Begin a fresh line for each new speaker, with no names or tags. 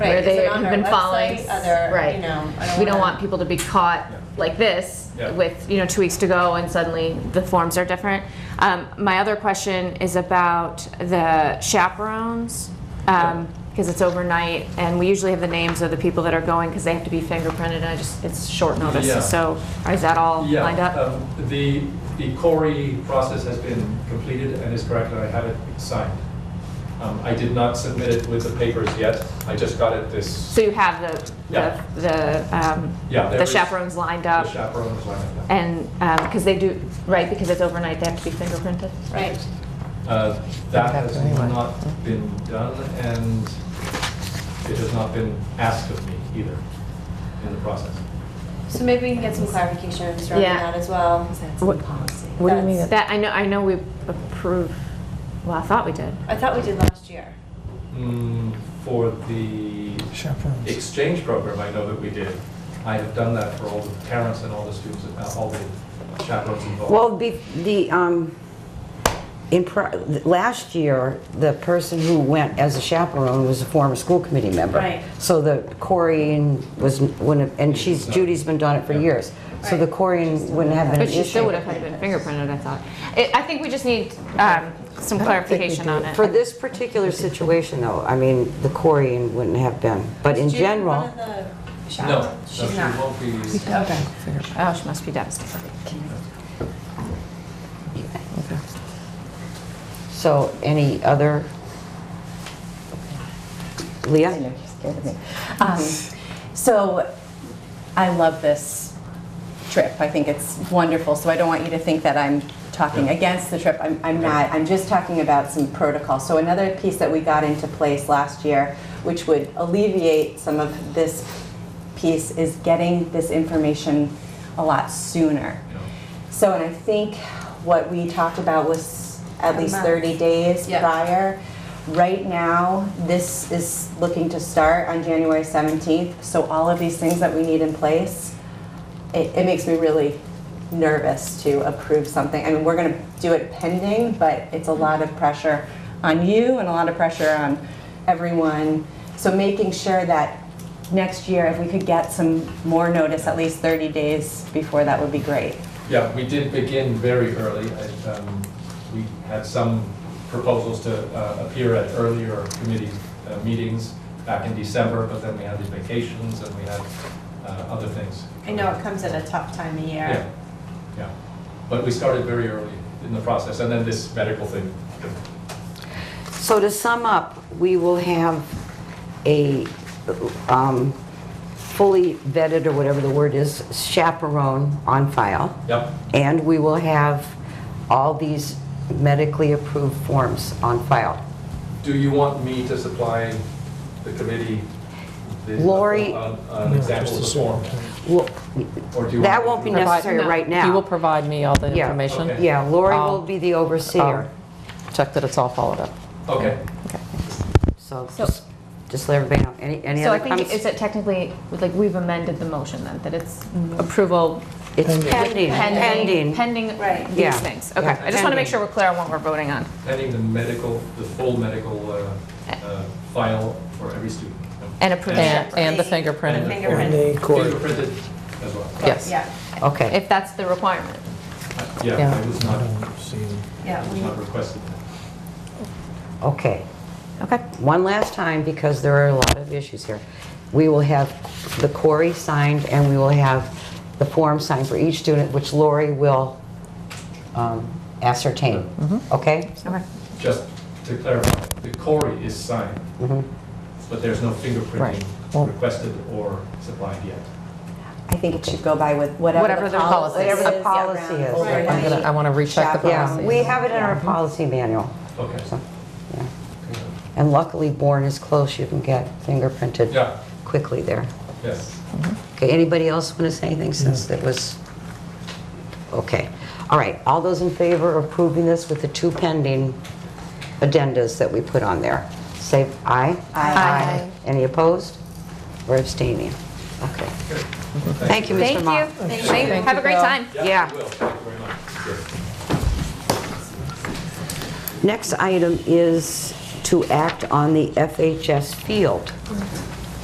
Right,
where
is it
they've
on our
been
website?
following.
Are there,
Right.
you know, I don't
We don't
wanna-
want people to be caught like this
Yeah.
with, you know, two weeks to go and suddenly the forms are different. Um, My other question is about the chaperones, because it's overnight and we usually have the names of the people that are going because they have to be fingerprinted and I just, it's short
Yeah.
notice. So is that all
Yeah,
lined up?
um, The, the Corey process has been completed and is correct, and I have it signed. Um, I did not submit it with the papers yet, I just got it this,
So you have the,
Yeah.
the, the um,
Yeah, there
the
is-
chaperones lined
the
up?
chaperone was like that.
And, because they do, right, because it's overnight, they have to be fingerprinted?
Right.
Uh, That
Contact
has
anyway.
not been done, and it has not been asked of me either in the process.
So maybe we can get some clarification surrounding
Yeah.
that as well.
What- What do you mean?
That's-
That, I know, I know we approved, well, I thought we did.
I thought we did last year.
Mm, For the
Chaperones.
exchange program, I know that we did, I have done that for all the parents and all the students, uh, all the chaperones involved.
Well, be- the, um, in, pri- last year, the person who went as a chaperone was a former school committee member.
Right.
So the Corey and was, wouldn't have- and she's, Judy's been doing it for years. So the Corey wouldn't have been an
But
issue.
she still would have had to been fingerprinted, I thought. I I think we just need um, some clarification on it.
For this particular situation, though, I mean, the Corey wouldn't have been, but in
Did you-
general.
One of the
No, no,
chaperones?
she
She's not.
won't be.
Okay.
Oh, she must be devastated.
So any other?
I
Leah?
know, you're scared of me. Um, So I love this trip. I think it's wonderful. So I don't want you to think that I'm talking
Yeah.
against the trip. I'm, I'm not. I'm just talking about some protocol. So another piece that we got into place last year, which would alleviate some of this piece, is getting this information a lot sooner.
you know.
So, and I think what we talked about was at
A
least
month.
30 days
Yeah.
prior. Right now, this is looking to start on January 17th, so all of these things that we need in place, it, it makes me really nervous to approve something. I mean, we're gonna do it pending, but it's a lot of pressure on you and a lot of pressure on everyone. So making sure that next year, if we could get some more notice, at least 30 days before, that would be great.
Yeah, we did begin very early. I, um, We had some proposals to uh, appear at earlier committee uh, meetings back in December, but then we had these vacations and we had uh, other things.
I know it comes at a tough time of
Yeah,
year.
yeah. But we started very early in the process, and then this medical thing.
So to sum up, we will have a um, fully vetted, or whatever the word is, chaperone on file.
Yep,
And we will have all these medically approved forms on file.
do you want me to supply the committee? the-
Lori-
An an example of the form?
Well,
or do you
That
want-
won't be
Okay.
necessary
Provide- no.
right now.
He will provide me all the
Yeah.
information.
Okay.
Yeah, Lori will
I'll-
be the overseer.
I'll Check that it's all followed up.
Okay,
So
So-
just, just let everybody know. Any, any
So I
other
think,
comments?
is it technically, like, we've amended the motion then, that it's approval
It's pending,
pending,
pending.
pending
Right.
these
Yeah.
things? Okay,
Yeah.
I just want to make
Pending.
sure we're clear on what we're voting on.
pending the medical, the full medical uh, uh, file for every student.
And approve
And-
it.
and the
And the
fingerprint.
fingerprint.
Fingerprinted as well.
Yes.
Yeah,
Okay.
If that's the requirement.
Yeah,
Yeah.
I was not,
yeah.
I was
we-
not requested that.
Okay,
Okay.
one last time, because there are a lot of issues here. We will have the query signed, and we will have the form signed for each student, which Lori will um, ascertain, okay?
Okay.
Just to clarify, the Corey is signed,
Mm-hmm.
but there's no fingerprinting
Right. Well-
requested or supplied yet.
I think it should go by with whatever,
Whatever
the
their
poli-
policy is.
whatever
The policy is.
Right.
I'm gonna, I want to recheck the
Yeah,
policy.
we have it in our policy manual,
Okay.
So, yeah. and luckily Bourne is close, you can get
Yeah.
fingerprinted quickly there.
Yes.
Okay, anybody else want to say anything since it was, okay. All right, all those in favor of approving this with the two pending addendas that we put on there? Say aye?
Aye.
Any opposed or abstaining? Okay. Thank you,
Thank
Mr.
you.
Ma.
Thank you. Have a great time.
Yeah.
we will. Thank you very much. Yes.
Next item is to act on the FHS field.